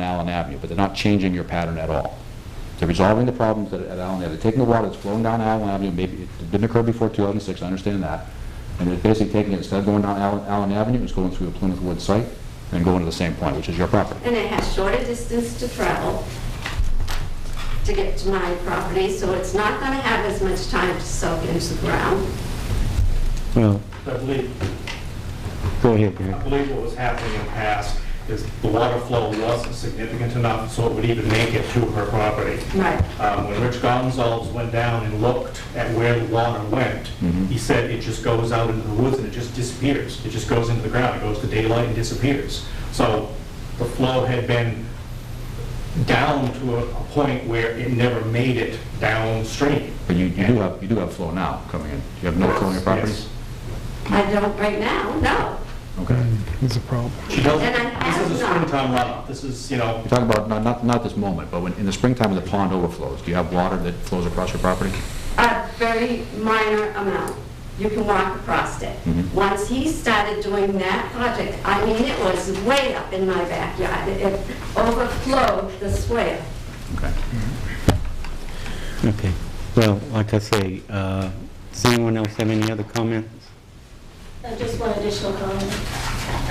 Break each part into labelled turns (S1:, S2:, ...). S1: Allen Avenue, but they're not changing your pattern at all. They're resolving the problems that- at Allen Avenue. They're taking the water that's flowing down Allen Avenue, maybe, it didn't occur before 2006, I understand that. And they're basically taking it, instead of going down Allen Allen Avenue, it's going through a Plymouth Woods site and going to the same point, which is your property.
S2: and it has shorter distance to travel to get to my property, so it's not going to have as much time to soak into the ground.
S3: Well,
S4: I believe,
S3: go ahead,
S4: I
S3: Gary.
S4: believe what was happening in the past is the water flow wasn't significant enough so it would even make it to her property.
S2: Right.
S4: Um, When Rich Gonzalez went down and looked at where the water went, he said it just goes out into the woods and it just disappears. It just goes into the ground, it goes to daylight and disappears. So the flow had been down to a a point where it never made it downstream.
S1: But you you do have, you do have flow now coming in. You have no flow in your properties?
S2: I don't right now, no.
S1: Okay.
S5: It's a problem.
S4: She doesn't,
S2: And I
S4: this is a
S2: have not.
S4: springtime runoff, this is, you know,
S1: You're talking about, not- not, not this moment, but when, in the springtime when the pond overflows, do you have water that flows across your property?
S2: A very minor amount. You can walk across it.
S5: Mm-hmm.
S1: Mhm.
S2: Once he started doing that project, I mean, it was way up in my backyard. It overflowed the swale.
S1: Okay.
S3: Okay. Well, like I say, uh, does anyone else have any other comments?
S6: Uh, Just one additional comment.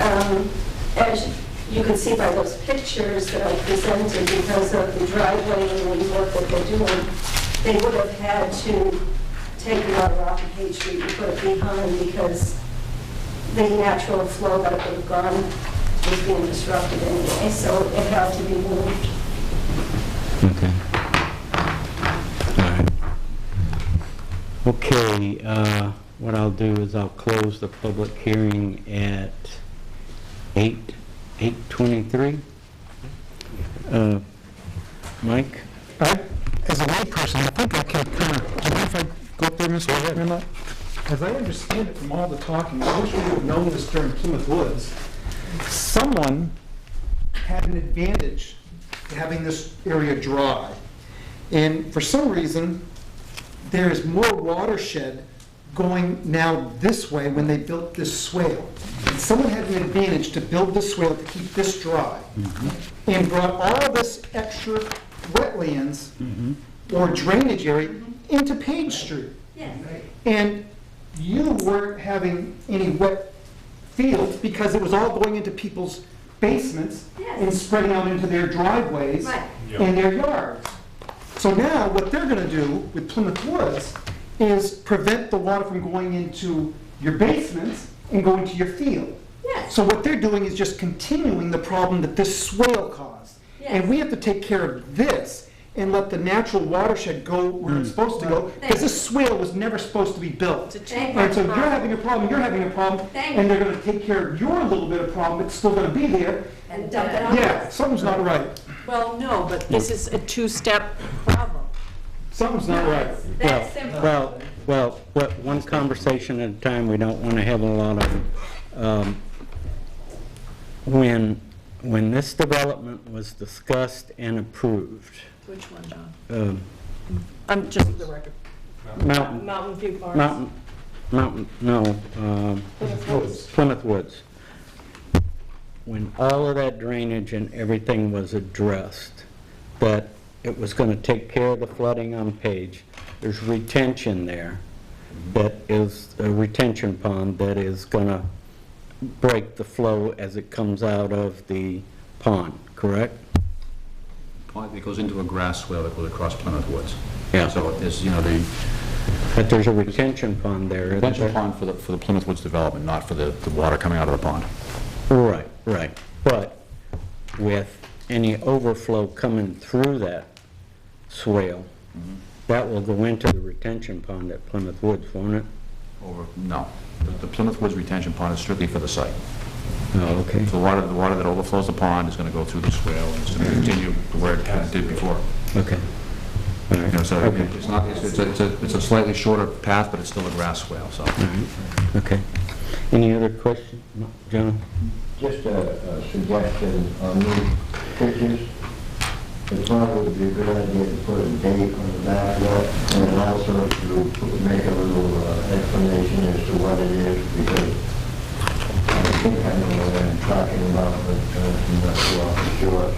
S6: Um, As you can see by those pictures that I presented, because of the driveway and the work that they're doing, they would have had to take water off of Page Street and put it behind because the natural flow that would have gone was being disrupted anyway, so it had to be moved.
S3: Okay. All right. Okay, uh, what I'll do is I'll close the public hearing at 8, 8:23. Uh, Mike?
S5: I, as a layperson, I think I can kind of, do you mind if I go up there, Mr. Renlet? As I understand it from all the talking, I wish we would have known this during Plymouth Woods. Someone had an advantage to having this area dry. And for some reason, there is more watershed going now this way when they built this swale. And someone had an advantage to build this swale to keep this dry and brought all this extra wetlands or drainage area into Page Street.
S2: Yes.
S5: And you weren't having any wet fields because it was all going into people's basements
S2: Yes.
S5: and spreading out into their driveways
S2: Right.
S5: and their yards. So now, what they're gonna do with Plymouth Woods is prevent the water from going into your basements and going to your field.
S2: Yes.
S5: So what they're doing is just continuing the problem that this swale caused. And
S2: Yes.
S5: we have to take care of this and let the natural watershed go where it's supposed to go, because this swale was never supposed to be built.
S2: Thank
S5: And so
S2: you.
S5: you're having a problem, you're having a problem,
S2: Thank
S5: and they're gonna take care of your little bit of problem, it's still gonna be there.
S2: And dump it on
S5: Yeah,
S2: us.
S5: something's not right,
S7: Well, no, but this is a two-step problem.
S5: something's not right.
S2: That's simple.
S3: Well, well, well, one conversation at a time, we don't want to have a lot of, them. Um, when, when this development was discussed and approved,
S7: Which one, John?
S3: um,
S7: I'm just for the record.
S3: Uh, Mountain,
S7: Mountain View Farms.
S3: Mountain, Mountain, no, um, Plymouth Woods. When all of that drainage and everything was addressed, that it was gonna take care of the flooding on Page, there's retention there that is, a retention pond that is gonna break the flow as it comes out of the pond, correct?
S1: It goes into a grass swale that goes across Plymouth Woods.
S3: Yeah.
S1: So there's, you know, the
S3: But there's a retention pond there, isn't
S1: retention
S3: there?
S1: pond for the, for the Plymouth Woods development, not for the, the water coming out of the pond.
S3: Right, right, but with any overflow coming through that swale, that will go into the retention pond at Plymouth Woods, won't it?
S1: Over, no. The- The Plymouth Woods retention pond is strictly for the site.
S3: Oh, okay.
S1: The water, the water that overflows the pond is going to go through the swale and it's going to continue to where it kind of did before.
S3: Okay. All
S1: You know,
S3: right,
S1: so it's not, it's- it's a- it's a, it's a slightly shorter path, but it's still a grass swale, so.
S3: okay. Any other question, John?
S8: Just a a suggestion on these pictures. It probably would be a good idea to put a date on the back of that, and also to make a little uh, explanation as to what it is, because I think I know what I'm talking about, but uh, I'm not so sure.